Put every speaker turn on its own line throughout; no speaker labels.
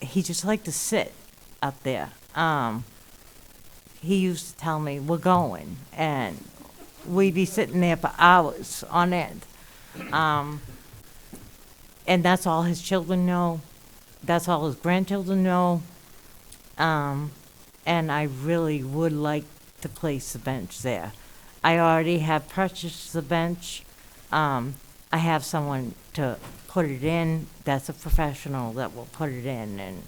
he just liked to sit up there. Um, he used to tell me, we're going, and we'd be sitting there for hours on end. Um, and that's all his children know. That's all his grandchildren know. Um, and I really would like to place the bench there. I already have purchased the bench. Um, I have someone to put it in. That's a professional that will put it in, and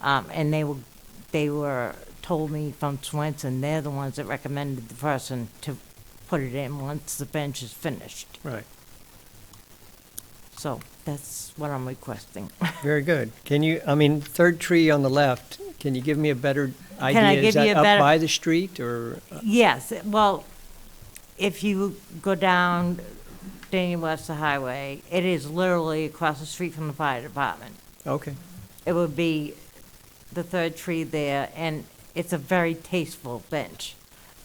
um, and they were they were told me from Swenson they're the ones that recommended the person to put it in once the bench is finished.
Right,
So that's what I'm requesting.
very good. Can you, I mean, third tree on the left, can you give me a better idea?
I
Is
give
that
you a better-
Up by the street or, uh,
Yes, well, if you go down Daniel Webster Highway, it is literally across the street from the fire department.
okay,
It would be the third tree there, and it's a very tasteful bench.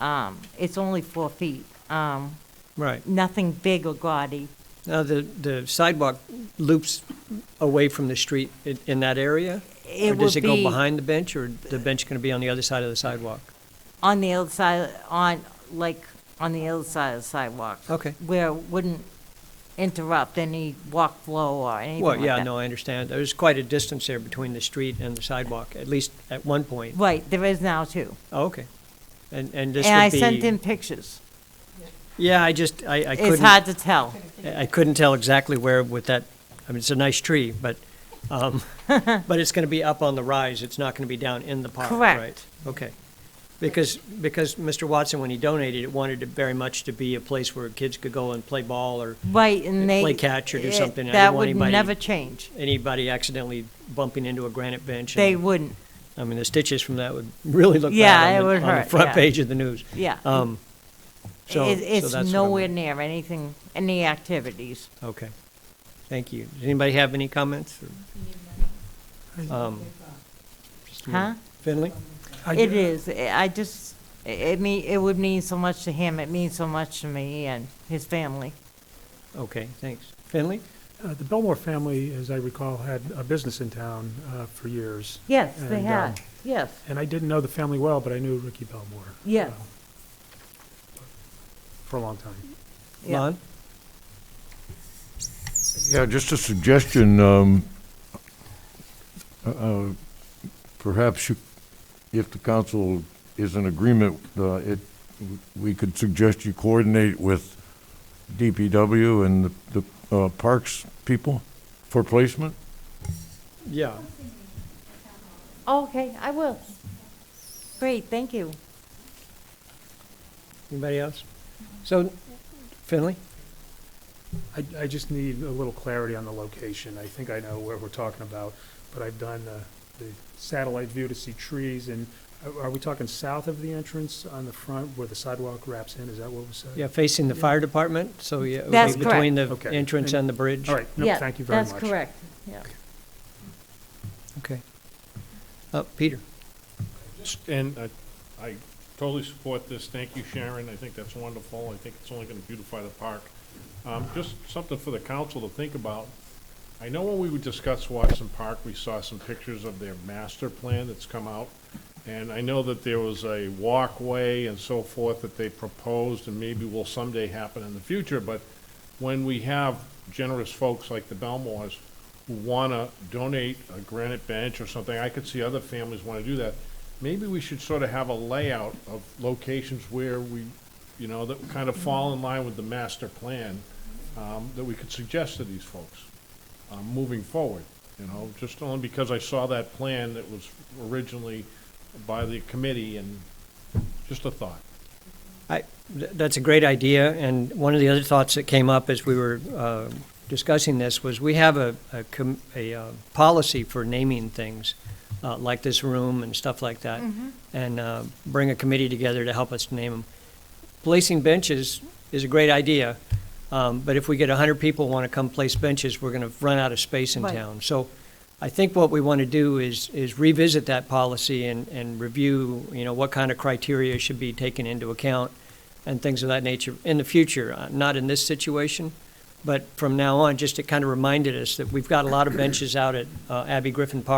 Um, it's only four feet, um,
right.
nothing big or gaudy.
Now, the, the sidewalk loops away from the street in, in that area?
It
Or does
would
it go
be-
behind the bench or the bench going to be on the other side of the sidewalk?
On the other side, on, like, on the other side of the sidewalk.
Okay.
Where it wouldn't interrupt any walk flow or anything
Well,
like
yeah,
that.
no, I understand. There's quite a distance there between the street and the sidewalk, at least at one point.
Right, there is now too.
Oh, Okay. And, and this would be.
And I sent in pictures.
Yeah, I just, I, I couldn't.
It's hard to tell.
I I couldn't tell exactly where with that, I mean, it's a nice tree, but, um, but it's gonna be up on the rise, it's not gonna be down in the park, right?
Correct.
Okay. Because, because Mr. Watson, when he donated it, wanted it very much to be a place where kids could go and play ball or
Right, and they.
Play catch or do
it-
something. I
That
didn't want
would
anybody-
never change.
anybody accidentally bumping into a granite bench.
They
and-
wouldn't,
I mean, the stitches from that would really look
Yeah,
bad
it
on the,
would
on the
hurt, yeah.
front page of the news.
yeah.
Um, so,
It-
so
It's
that's what I'm-
nowhere near anything, any activities.
Okay, thank you. Does anybody have any comments? or- Um, just a minute.
Huh?
Finley?
It is, I I just, i- it mean, it would mean so much to him, it means so much to me and his family.
Okay, thanks. Finley?
Uh, The Belmore family, as I recall, had a business in town uh, for years.
Yes, they
uh,
And,
have,
um,
yes,
And I didn't know the family well, but I knew Ricky Belmore.
Yes.
uh, For a long time.
yeah.
Lon?
Yeah, just a suggestion. um, uh, Perhaps you, if the council is in agreement, uh, it, we could suggest you coordinate with DPW and the the, uh, parks people for placement?
Yeah.
Okay, I will. Great, thank you.
Anybody else? So, Finley?
I, I just need a little clarity on the location. I think I know where we're talking about, but I've done the, the satellite view to see trees and uh, are- are we talking south of the entrance on the front where the sidewalk wraps in? Is that what was said?
Yeah, facing the fire department, so yeah, it
That's
would be between the
correct. Okay.
entrance and the bridge.
All right, no,
Yeah,
thank you very much.
That's correct, yeah.
Okay. Uh, Peter?
Just- And I, I totally support this. Thank you, Sharon. I think that's wonderful. I think it's only gonna beautify the park. Um, just something for the council to think about. I know when we discussed Watson Park, we saw some pictures of their master plan that's come out. And I know that there was a walkway and so forth that they proposed and maybe will someday happen in the future, but when we have generous folks like the Belmores who want to donate a granite bench or something, I could see other families want to do that. Maybe we should sort of have a layout of locations where we, you know, that kind of fall in line with the master plan um, that we could suggest to these folks uh, moving forward, you know, just only because I saw that plan that was originally by the committee and just a thought.
I, th- that's a great idea, and one of the other thoughts that came up as we were uh, discussing this was we have a, a, com- a uh, policy for naming things, uh, like this room and stuff like that, and uh, bring a committee together to help us name them. Placing benches is a great idea, um, but if we get 100 people want to come place benches, we're going to run out of space in
Right.
town. So I think what we want to do is, is revisit that policy and, and review, you know, what kind of criteria should be taken into account and things of that nature in the future, uh, not in this situation, but from now on, just it kind of reminded us that we've got a lot of benches out at uh, Abbey Griffin Park.